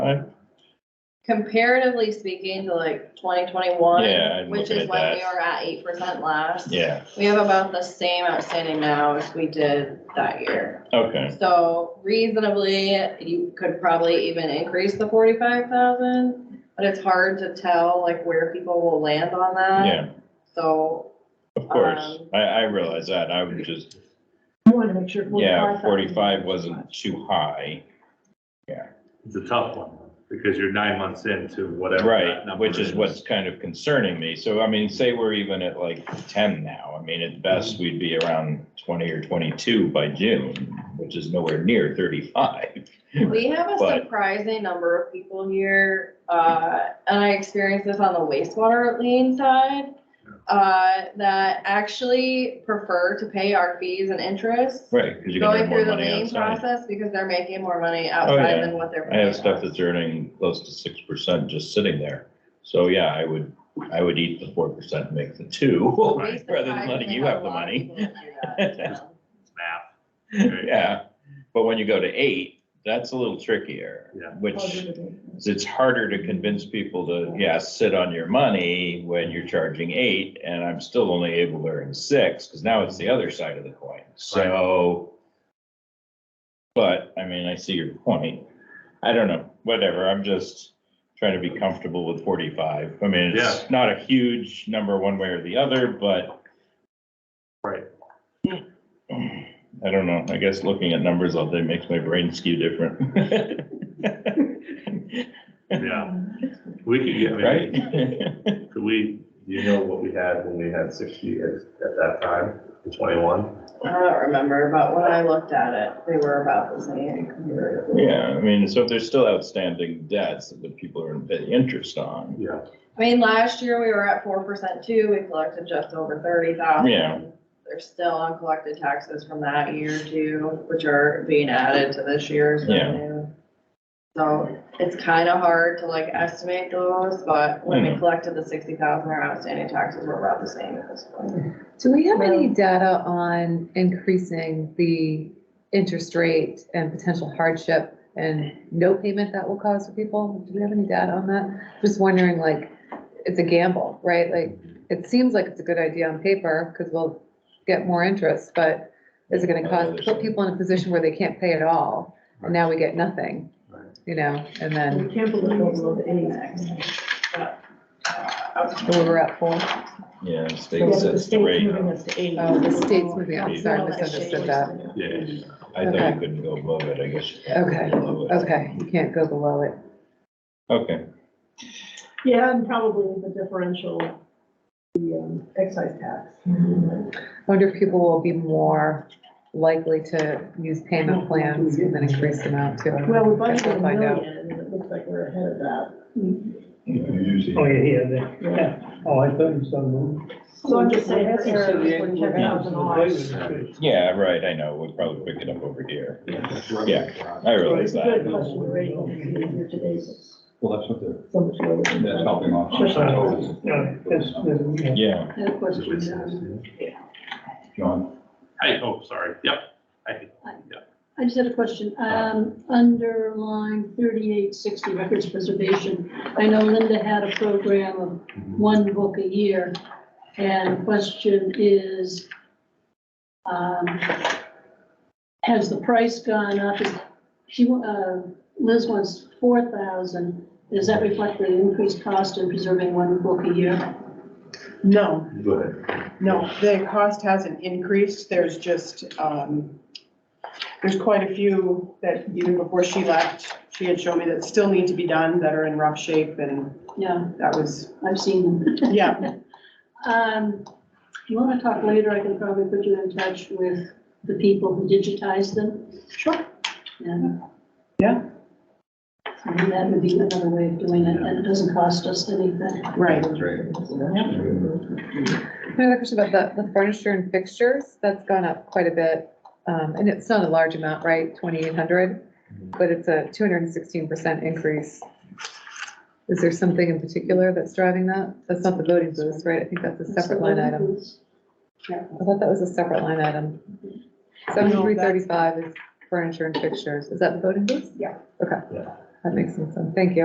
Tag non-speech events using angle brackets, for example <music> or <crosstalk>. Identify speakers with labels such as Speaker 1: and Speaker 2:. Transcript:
Speaker 1: I,
Speaker 2: Comparatively speaking to like twenty twenty-one,
Speaker 1: yeah, I'm
Speaker 2: which
Speaker 1: looking
Speaker 2: is
Speaker 1: at
Speaker 2: when we
Speaker 1: that.
Speaker 2: were at eight percent last.
Speaker 1: Yeah,
Speaker 2: We have about the same outstanding now as we did that year.
Speaker 1: okay,
Speaker 2: So reasonably, you could probably even increase the forty-five thousand, but it's hard to tell like where people will land on that.
Speaker 1: yeah,
Speaker 2: So,
Speaker 1: of course.
Speaker 2: Um,
Speaker 1: I, I realize that. I would just,
Speaker 3: I wanted to make sure.
Speaker 1: yeah, forty-five wasn't too high.
Speaker 4: It's a tough one, because you're nine months into whatever. that
Speaker 1: Right,
Speaker 4: number
Speaker 1: which is what's kind of concerning me. So, I mean, say we're even at like ten now. I mean, at best,
Speaker 2: Mm-hmm.
Speaker 1: we'd be around twenty or twenty-two by June, which is nowhere near thirty-five. <laughs>
Speaker 2: We have a
Speaker 1: But-
Speaker 2: surprising number of people here, uh, and I experienced this on the wastewater lien side, uh, that actually prefer to pay our fees and interest.
Speaker 1: Right, because you're gonna
Speaker 2: Going
Speaker 1: have more
Speaker 2: through the
Speaker 1: money
Speaker 2: lien
Speaker 1: outside. Oh,
Speaker 2: process because they're making more money
Speaker 1: yeah.
Speaker 2: outside than what they're.
Speaker 1: I have
Speaker 2: paying
Speaker 1: stuff
Speaker 2: us.
Speaker 1: that's earning close to six percent just sitting there. So, yeah, I would, I would eat the four percent, make the two, <laughs>
Speaker 2: We
Speaker 1: rather than letting
Speaker 2: surprisingly
Speaker 1: you
Speaker 2: have
Speaker 1: have
Speaker 2: a
Speaker 1: the
Speaker 2: lot of
Speaker 1: money.
Speaker 2: people that do that, yeah.
Speaker 4: Math. right?
Speaker 1: Yeah, but when you go to eight, that's a little trickier.
Speaker 4: Yeah.
Speaker 1: Which is it's harder to convince people to, yeah, sit on your money when you're charging eight and I'm still only able to earn six, because now it's the other side of the coin. So. But, I mean, I see your point. I don't know, whatever, I'm just trying to be comfortable with forty-five. I mean, it's not a huge number one way or the other, but
Speaker 4: Right,
Speaker 1: I don't know. I guess looking at numbers all day makes my brain skew different. <laughs>
Speaker 4: yeah, we could get, I
Speaker 1: Right?
Speaker 4: mean, could we, do you know what we had when we had sixty at, at that time, in twenty-one?
Speaker 2: I don't remember, but when I looked at it, they were about the same.
Speaker 1: <laughs> Yeah, I mean, so if there's still outstanding debts that people are paying interest on,
Speaker 4: Yeah,
Speaker 2: I mean, last year we were at four percent too, we collected just over thirty thousand.
Speaker 1: Yeah.
Speaker 2: There's still uncollected taxes from that year too, which are being added to this year's
Speaker 1: Yeah.
Speaker 2: revenue. So it's kind of hard to like estimate those, but when we
Speaker 1: Mhm.
Speaker 2: collected the sixty thousand, our outstanding taxes were about the same at this point.
Speaker 3: Do we have any data on increasing the interest rate and potential hardship and no payment that will cause for people? Do we have any data on that? Just wondering, like, it's a gamble, right? Like, it seems like it's a good idea on paper because we'll get more interest, but is it going to cause, put people in a position where they can't pay at all? And now we get nothing,
Speaker 4: Right.
Speaker 3: you know, and then
Speaker 5: We can't believe it's not any tax.
Speaker 3: we were at four.
Speaker 1: yeah, the state
Speaker 5: Yeah, but the
Speaker 1: sets the
Speaker 5: state's
Speaker 1: rate.
Speaker 5: moving us to eight.
Speaker 3: Oh, the state's moving, I'm sorry, misunderstood that.
Speaker 4: yeah,
Speaker 1: I thought
Speaker 3: Okay.
Speaker 1: you couldn't go above it, I guess. you can go
Speaker 3: Okay,
Speaker 1: below it.
Speaker 3: okay, you can't go below it.
Speaker 1: Okay,
Speaker 5: Yeah, and probably the differential, the um, excise tax.
Speaker 3: I wonder if people will be more likely to use
Speaker 6: Hmm.
Speaker 3: payment plans with an increased amount too.
Speaker 5: Well, we
Speaker 3: Guess
Speaker 5: budgeted
Speaker 3: we'll
Speaker 5: a
Speaker 3: find out.
Speaker 5: million, and it looks like we're ahead of that.
Speaker 7: Oh, yeah, yeah, there. yeah. Oh, I thought you said move.
Speaker 5: So I'm just saying, for errors, we're checking out the laws.
Speaker 1: yeah, right, I know, we'll probably pick it up over here. Yeah, I realize
Speaker 5: It's a good
Speaker 1: that.
Speaker 5: question, the rate is here today, is
Speaker 8: Well, that's what they're,
Speaker 5: so much lower than
Speaker 8: that's
Speaker 5: that.
Speaker 8: helping off.
Speaker 7: Yeah, that's, that's-
Speaker 1: Yeah,
Speaker 5: And of course,
Speaker 4: Is it
Speaker 5: we
Speaker 4: business?
Speaker 5: have-
Speaker 8: John,
Speaker 4: Hey, oh, sorry, yep, I,
Speaker 9: I just had a question. Um, under line thirty-eight sixty, records preservation. I know Linda had a program of one book a year. And the question is, um, has the price gone up? Is- She, uh, Liz wants four thousand. Does that reflect the increased cost in preserving one book a year?
Speaker 6: No,
Speaker 4: go ahead.
Speaker 6: no, the cost hasn't increased, there's just, um, there's quite a few that even before she left, she had shown me that still need to be done, that are in rough shape, and
Speaker 9: Yeah,
Speaker 6: that was,
Speaker 9: I've seen them.
Speaker 6: <laughs> yeah,
Speaker 9: Um, you wanna talk later, I can probably put you in touch with the people who digitize them. Sure. Yeah.
Speaker 6: Yeah.
Speaker 9: I mean, that would be another way of doing it, and it doesn't cost us anything.
Speaker 6: right.
Speaker 3: Another question about the, the furniture and fixtures, that's gone up quite a bit. Um, and it's not a large amount, right, twenty-eight hundred, but it's a two hundred and sixteen percent increase. Is there something in particular that's driving that? That's not the voting booths, right? I think that's a separate line item. I thought that was a separate line item. Seventy-three thirty-five is furniture and fixtures. Is that the voting booth?
Speaker 5: Yeah.
Speaker 3: Okay.
Speaker 4: Yeah.
Speaker 3: that makes some sense. Thank you.